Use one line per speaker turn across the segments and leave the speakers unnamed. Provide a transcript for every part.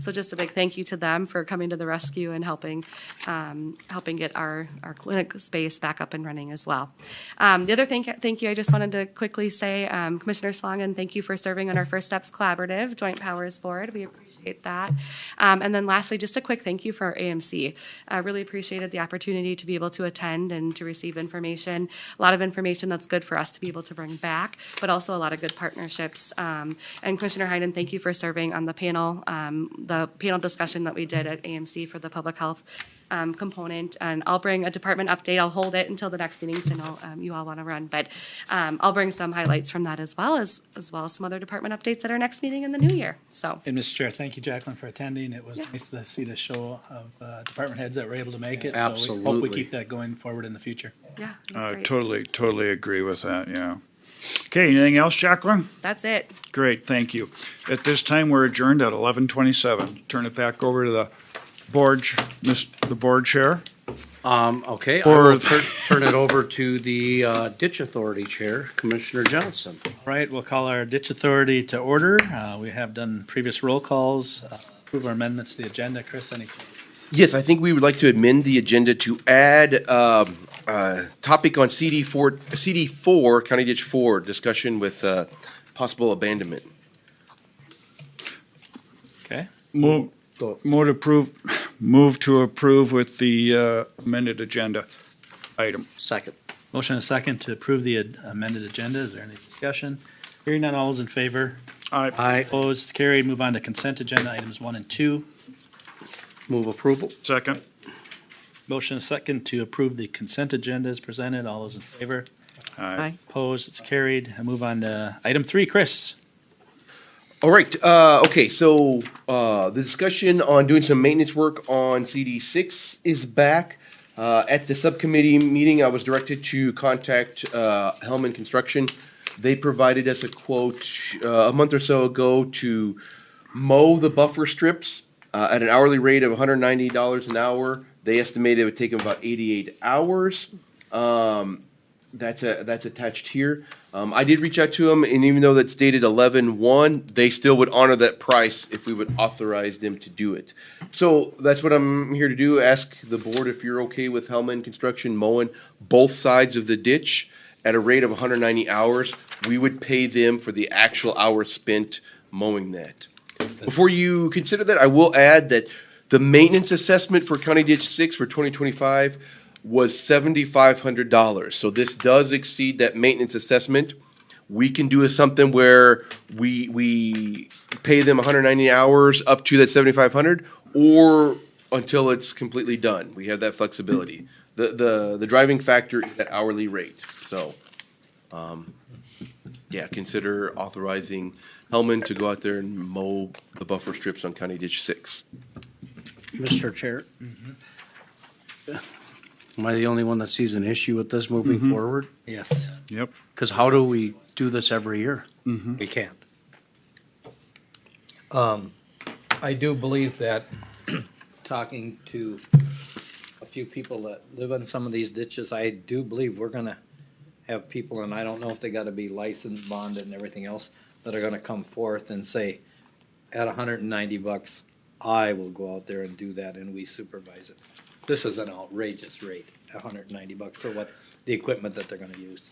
So just a big thank you to them for coming to the rescue and helping, um, helping get our, our clinic space back up and running as well. Um, the other thing, thank you, I just wanted to quickly say, um, Commissioner Schlangen, thank you for serving on our First Steps Collaborative Joint Powers Board. We appreciate that. Um, and then lastly, just a quick thank you for our AMC. I really appreciated the opportunity to be able to attend and to receive information. A lot of information that's good for us to be able to bring back, but also a lot of good partnerships. Um, and Commissioner Hyden, thank you for serving on the panel, um, the panel discussion that we did at AMC for the public health um, component. And I'll bring a department update. I'll hold it until the next meeting, so I know um, you all want to run. But um, I'll bring some highlights from that as well as, as well as some other department updates at our next meeting in the new year. So
And Mr. Chair, thank you, Jacqueline, for attending. It was nice to see the show of uh, department heads that were able to make it. So we hope we
Absolutely.
keep that going forward in the future.
yeah, it was
I
great.
Uh, totally, totally agree with that, yeah. Okay, anything else, Jacqueline?
That's it.
Great, thank you. At this time, we're adjourned at eleven twenty-seven. Turn it back over to the board, ch- Miss- the board chair.
Um, okay, I will
Or-
tur- turn it over to the uh, Ditch Authority Chair, Commissioner Johnson.
All right, we'll call our ditch authority to order. Uh, We have done previous roll calls. Uh, Approve our amendments to the agenda. Chris, any?
Yes, I think we would like to amend the agenda to add um, uh, topic on CD four, CD four, County Ditch four, discussion with uh, possible abandonment.
Okay.
Move,
Go.
move to approve, move to approve with the uh, amended agenda item.
Second.
Motion and a second to approve the ad- amended agenda. Is there any discussion? Hearing none, all those in favor?
I
I
Opposed, carried. Move on to consent agenda items one and two.
move approval.
second.
Motion and a second to approve the consent agenda as presented. All those in favor?
Aye.
Opposed, it's carried. I move on to item three. Chris?
All right, uh, okay, so uh, the discussion on doing some maintenance work on CD six is back. Uh, At the subcommittee meeting, I was directed to contact uh, Hellman Construction. They provided us a quote uh, a month or so ago to mow the buffer strips uh, at an hourly rate of $190 an hour. They estimated it would take them about 88 hours that's a that's attached here. Um, I did reach out to them, and even though that's dated 11-1, they still would honor that price if we would authorize them to do it. So that's what I'm here to do. Ask the board if you're okay with Hellman Construction mowing both sides of the ditch at a rate of 190 hours. We would pay them for the actual hours spent mowing that. Before you consider that, I will add that the maintenance assessment for County Ditch Six for twenty twenty-five was seventy-five hundred dollars. So this does exceed that maintenance assessment. We can do something where we, we pay them hundred ninety hours up to that seventy-five hundred or until it's completely done. We have that flexibility. The, the, the driving factor is that hourly rate, so. Yeah, consider authorizing Hellman to go out there and mow the buffer strips on County Ditch Six.
Mr. Chair. Mm-hmm. Am I the only one that sees an issue with this moving forward?
Yes.
Yep.
Because how do we do this every year? We can't.
I do believe that, talking to a few people that live in some of these ditches, I do believe we're gonna have people, and I don't know if they gotta be licensed, bonded, and everything else, that are gonna come forth and say, at hundred and ninety bucks, I will go out there and do that, and we supervise it. This is an outrageous rate, hundred and ninety bucks for what, the equipment that they're gonna use.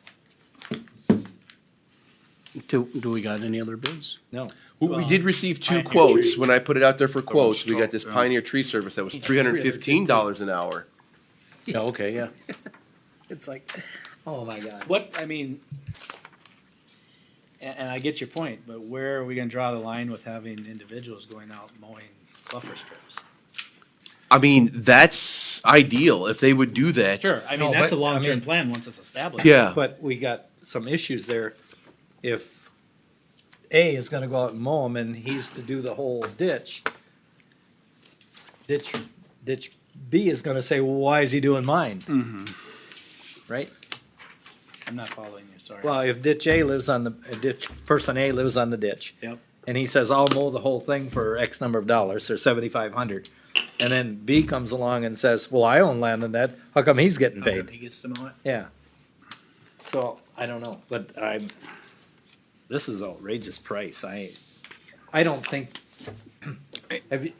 Do, do we got any other bids?
No.
We- We did receive two
Pioneer
quotes. When I put it out there for quotes, we got this
tough, yeah.
Pioneer Tree Service that was three hundred and fifteen dollars an hour.
Yeah, okay, yeah.
It's like, oh my God.
What, I mean, and, and I get your point, but where are we gonna draw the line with having individuals going out mowing buffer strips?
I mean, that's ideal if they would do that.
Sure, I mean,
No,
that's a
but, I
long-term
mean-
plan once it's established.
Yeah.
But we got some issues there. If A is gonna go out and mow him and he's to do the whole ditch, ditch, ditch B is gonna say, well, why is he doing mine? Right?
I'm not following you, sorry.
Well, if ditch A lives on the, uh, ditch, person A lives on the ditch.
Yep.
And he says, I'll mow the whole thing for X number of dollars, or seventy-five hundred. And then B comes along and says, well, I own land in that, how come he's getting paid?
He gets to mow it.
Yeah. So, I don't know, but I'm, this is outrageous price, I, I don't think, have you,